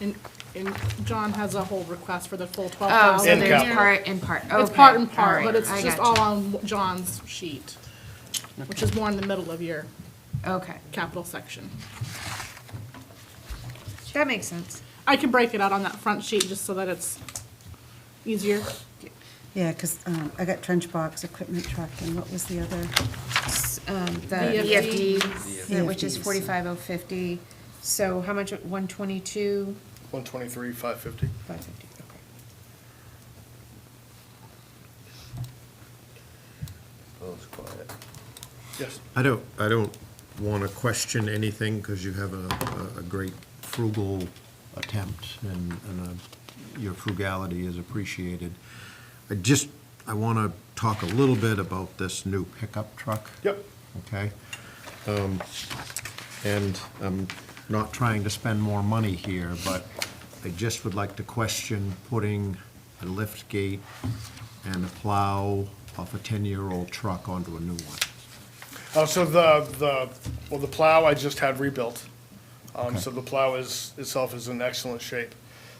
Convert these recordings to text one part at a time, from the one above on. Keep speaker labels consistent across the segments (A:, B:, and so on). A: And, and John has a whole request for the full twelve
B: Oh, so
A: thousand.
C: In
B: there's
C: count.
B: part and part, okay.
A: It's part and
B: all
A: part,
B: right,
A: but it's
B: I
A: just all
B: gotcha.
A: on John's sheet, which is more in the middle of your
B: Okay,
A: capital section.
B: that makes sense.
A: I can break it out on that front sheet just so that it's easier.
D: Yeah, because I got trench box, equipment truck, and what was the other?
B: S- um, The
A: VFD.
B: VFD, which is
D: VFDs.
B: forty-five oh fifty, so how much, one twenty-two,
C: One twenty-three, five fifty.
B: five fifty, okay.
E: Oh, it's quiet.
C: Yes.
F: I don't, I don't want to question anything because you have a, a- a great frugal attempt and, and uh, your frugality is appreciated. I just, I want to talk a little bit about this new pickup truck.
C: Yep.
F: Okay? Um, And I'm not trying to spend more money here, but I just would like to question putting a lift gate and a plow off a 10-year-old truck onto a new one.
C: Uh, so the, the, well, the plow I just had rebuilt. Um,
F: Okay.
C: so the plow is, itself is in excellent shape.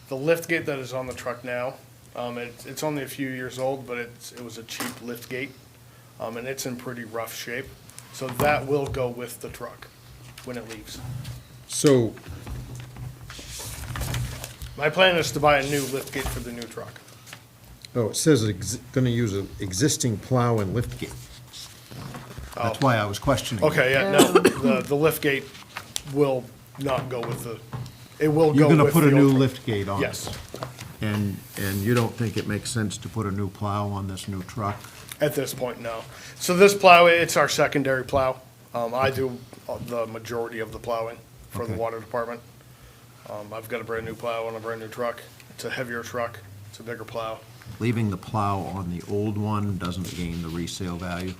C: The lift gate that is on the truck now, um, it, it's only a few years old, but it's, it was a cheap lift gate. Um, and it's in pretty rough shape. So that will go with the truck when it leaves.
F: So,
C: My plan is to buy a new lift gate for the new truck.
F: oh, it says ex- gonna use an existing plow and lift gate. That's why I was questioning. it.
C: Oh. Okay, yeah, no, the, the lift gate will not go with the, it will go
F: You're
C: with the
F: gonna put a new
C: old truck.
F: lift gate on it?
C: Yes,
F: And, and you don't think it makes sense to put a new plow on this new truck?
C: at this point, no. So this plow, it's our secondary plow. Um, I do the majority of the plowing for the
F: Okay.
C: water department. Um, I've got a brand-new plow and a brand-new truck. It's a heavier truck, it's a bigger plow.
F: Leaving the plow on the old one doesn't gain the resale value?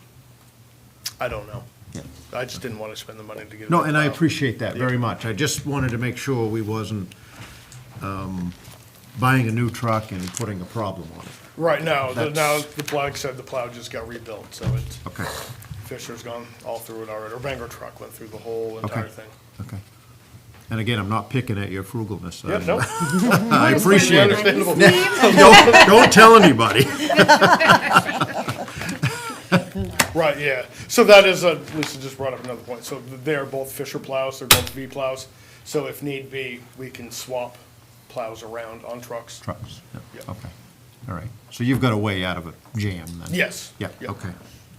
C: I don't know.
F: Yeah.
C: I just didn't want to spend the money to get a
F: No,
C: new
F: and I
C: plow.
F: appreciate that very
C: Yeah.
F: much. I just wanted to make sure we wasn't, um, buying a new truck and putting a problem on it.
C: Right, no, the, no,
F: That's-
C: the plow, like I said, the plow just got rebuilt, so it's,
F: Okay,
C: Fisher's gone all through it already. Or Bangor truck went through the whole entire
F: okay,
C: thing.
F: okay. And again, I'm not picking at your frugalness.
C: Yeah,
F: I-
C: no.
F: I appreciate it.
C: Understandable.
F: Don't, don't tell anybody.
C: Right, yeah. So that is, a- Lisa just brought up another point. So they're both Fisher plows, they're both V plows. So if need be, we can swap plows around on trucks.
F: Trucks, yeah,
C: Yeah.
F: okay, all right. So you've got a way out of a jam then?
C: Yes.
F: Yeah,
C: Yeah.
F: okay,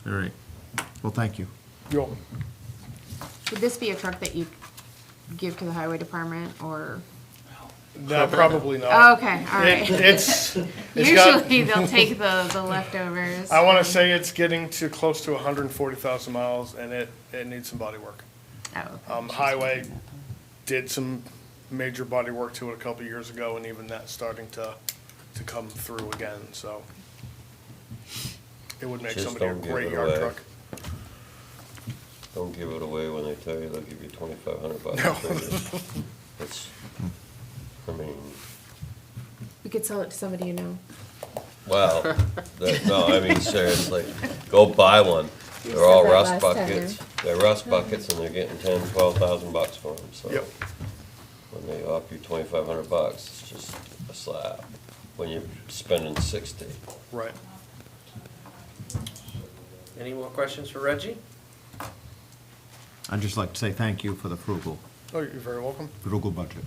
F: all right. Well, thank you.
C: You're welcome.
B: Would this be a truck that you give to the highway department, or?
C: No, probably not.
B: Okay, all
C: It-
B: right.
C: It's, it's got,
B: Usually they'll take the, the leftovers.
C: I want to say it's getting to close to 140,000 miles and it, it needs some body work.
B: Oh,
C: Um, highway did some major body work to it a couple years ago and even that's starting to, to come through again, so. It would make
E: Just
C: somebody a
E: don't give
C: great
E: it
C: yard
E: away.
C: truck.
E: Don't give it away when they tell you they'll give you twenty-five hundred bucks. It's, I mean,
B: We could sell it to somebody you know.
E: wow. That- No, I mean, seriously, go buy one. They're all
B: said that
E: rust
B: last time,
E: buckets. They're rust buckets and they're getting ten, twelve thousand bucks for them, so.
C: Yep.
E: When they offer you twenty-five hundred bucks, it's just a slap when you're spending sixty.
C: Right.
G: Any more questions for Reggie?
F: I'd just like to say thank you for the frugal,
C: Oh, you're very welcome.
F: frugal budget.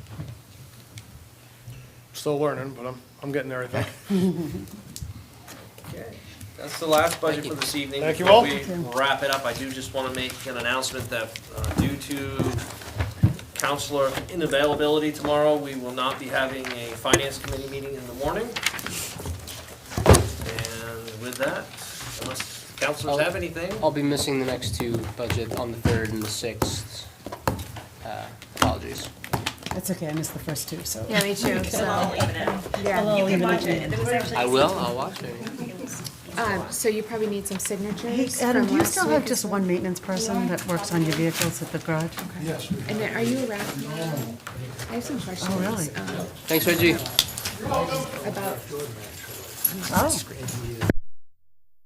C: Still learning, but I'm, I'm getting there, I think.
G: Okay. That's the last budget for this evening.
C: Thank you
G: Before
C: all.
G: we wrap it up, I do just want to make an announcement that uh, due to counselor inavailability tomorrow, we will not be having a finance committee meeting in the morning. And with that, unless counselors have anything,
H: I'll be missing the next two budget on the third and the sixth. Uh, Apologies.
D: That's okay, I missed the first two, so.
B: Yeah, me too, so, yeah.
D: I'll leave it at that.
H: I will, I'll watch it.
B: Um, so you probably need some
D: Hey,
B: signatures
D: Adam,
B: from
D: do you
B: last
D: still have
B: week.
D: just one maintenance person that works on your vehicles at the garage?
B: And then, are you around? tomorrow? I have some questions.
D: Oh, really?
B: um,
H: Thanks, Reggie.
B: About
D: Oh,